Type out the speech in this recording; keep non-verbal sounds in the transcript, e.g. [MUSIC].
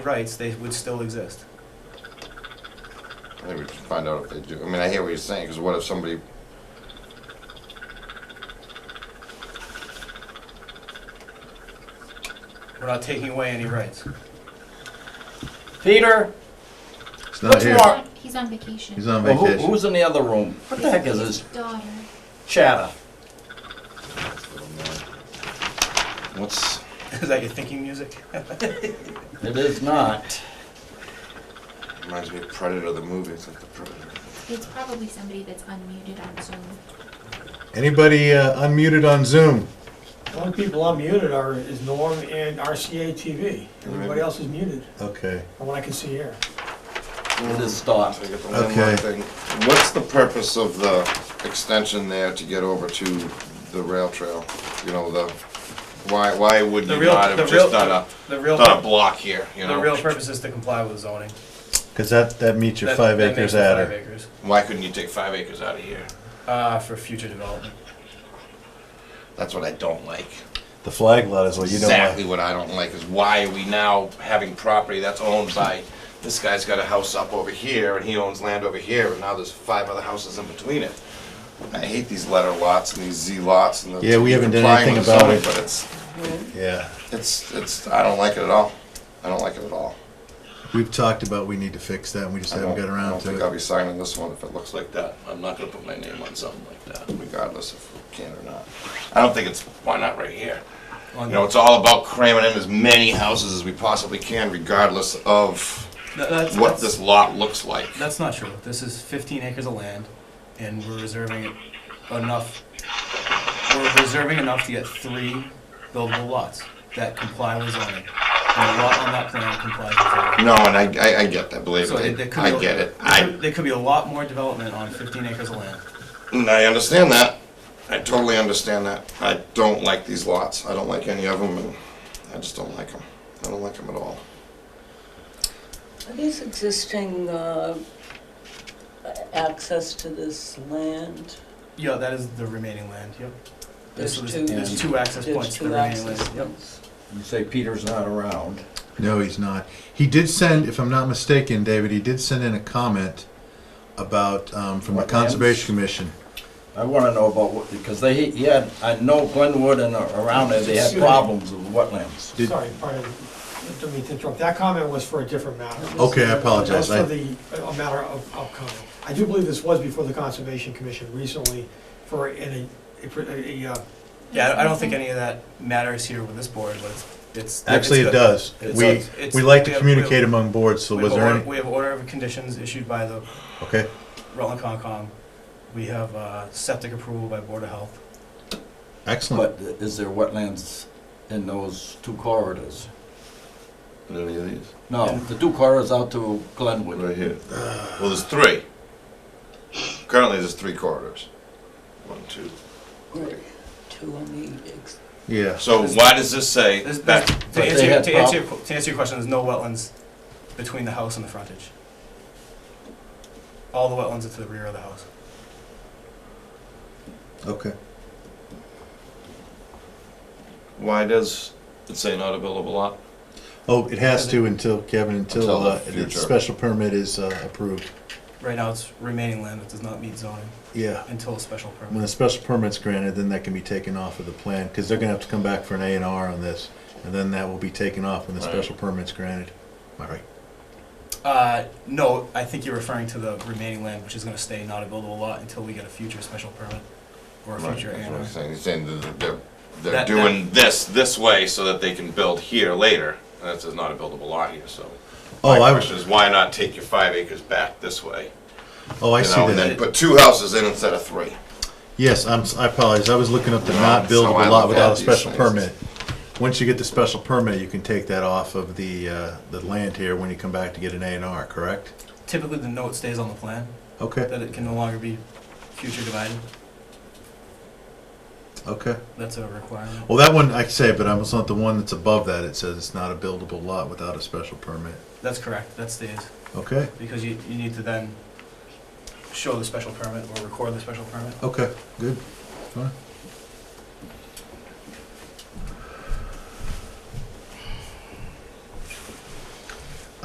rights, they would still exist. I think we should find out if they do. I mean, I hear what you're saying, because what if somebody... We're not taking away any rights. [LAUGHS] Peter, What's It's not here. more- He's on vacation. He's on Well, who, vacation. who's in the other room? What the heck is His this daughter. chatter? What's, is that your thinking music? [LAUGHS] it is not. Reminds me of Predator, the movie. It's like the Predator. It's probably somebody that's unmuted on Zoom. Anybody uh, unmuted on Zoom? The only people unmuted are, is Norm and RCA TV. Everybody else is muted, Okay. from what I can see here. It is So stopped. I get the one more Okay. thing. What's the purpose of the extension there to get over to the rail trail? You know, the, why, why would The you real, not the have real, just done a, the real, done a pur- block here, you the real know? purpose is to comply with zoning. Because that, that meets your That- five that acres makes it adder. Five acres, Why couldn't you take five acres out of here? uh, for future development. That's what I don't like. The flag lot is what you don't Exactly like. what I don't like is why are we now having property that's owned by, this guy's got a house up over here and he owns land over here and now there's five other houses in between it. I hate these letter lots and these Z lots and the. Yeah, we haven't done complying anything with about zoning, it. But it's, Yeah. it's, it's, I don't like it at all. I don't like it at all. We've talked about we need to fix that and we just I haven't don't- got I around don't think I'll to be it. signing this one if it looks like that, I'm not gonna put my name on something like that. regardless if we can or not. I don't think it's, why not right here? You On know, it's all about cramming in as many houses as we possibly can regardless of Th- that's- what that's- this lot looks like. That's not true. This is fifteen acres of land, and we're reserving it enough, we're reserving enough to get three buildable lots that comply with zoning. And a lot on that plan complies with zoning. No, and I, I, I get that, believe So me. there could be I a- get it. there I, could- There could be a lot more development on fifteen acres of land. and I understand that. I totally understand that. I don't like these lots. I don't like any of them, and I just don't like them. I don't like them at all. Are these existing uh, access to this land? Yeah, that is the remaining land, yep. There's So two- There's two access There's points to the two remaining access land, yep. points. You say Peter's not around. No, he's not. He did send, if I'm not mistaken, David, he did send in a comment about, um, from the What lands? Conservation Commission. I wanna know about what, because they, he had, I know Glenwood and around there, they had problems with wetlands. Did- Sorry, pardon, I didn't mean to interrupt. That comment was for a different matter. Okay, I apologize. That's for I- the, a matter of, of comment. I do believe this was before the Conservation Commission recently for, in a, a, a, uh, Yeah, I- I don't think any of that matters here with this board, but it's- it's. Actually, it's it good. does. It's We, good. It's- we like we to have- communicate among boards, so We was have there order- any? We have order of conditions issued by the Okay, Rutland Concom. We have uh, septic approval by Board of Health. excellent. But is there wetlands in those two corridors? Any of these? No, the two corridors out to Glenwood. here. Uh, Well, there's three. Currently, there's three corridors. One, two. Right, Two on the, ex- Yeah. So why does this say There's- there's- that? To they answer, your- had to answer, your qu- to answer your question, there's no wetlands between the house and the frontage. All the wetlands are to the rear of the house. Okay. Why does it say not a buildable lot? Oh, it has to until, Kevin, until Until the uh, the future. special permit is uh, approved. Right now, it's remaining land that does not meet zoning Yeah. until a special When permit. a special permit's granted, then that can be taken off of the plan, because they're gonna have to come back for an A and R on this, and then that will be taken off when the Right. special permit's granted. Am I right? Uh, no, I think you're referring to the remaining land, which is gonna stay not a buildable lot until we get a future special permit or a future A That's what and he's R. saying. He's saying that they're, they're That- doing this, this way so that they can build here later. And That is not a buildable lot here, so. Oh, My I- question is, why not take your five acres back this way? Oh, I you see know, and then that. Put two houses in instead of three. Yes, I'm, s- I apologize, I was looking up the not That's how I buildable look at lot without a these special things. permit. Once you get the special permit, you can take that off of the, uh, the land here when you come back to get an A and R, correct? Typically, the note stays on the plan, Okay, that it can no longer be future divided. okay. That's a requirement. Well, that one, I can say, but I was not the one that's above that, it says it's not a buildable lot without a special permit. That's correct, that stays, Okay, because you, you need to then show the special permit or record the special permit. okay, good, fine.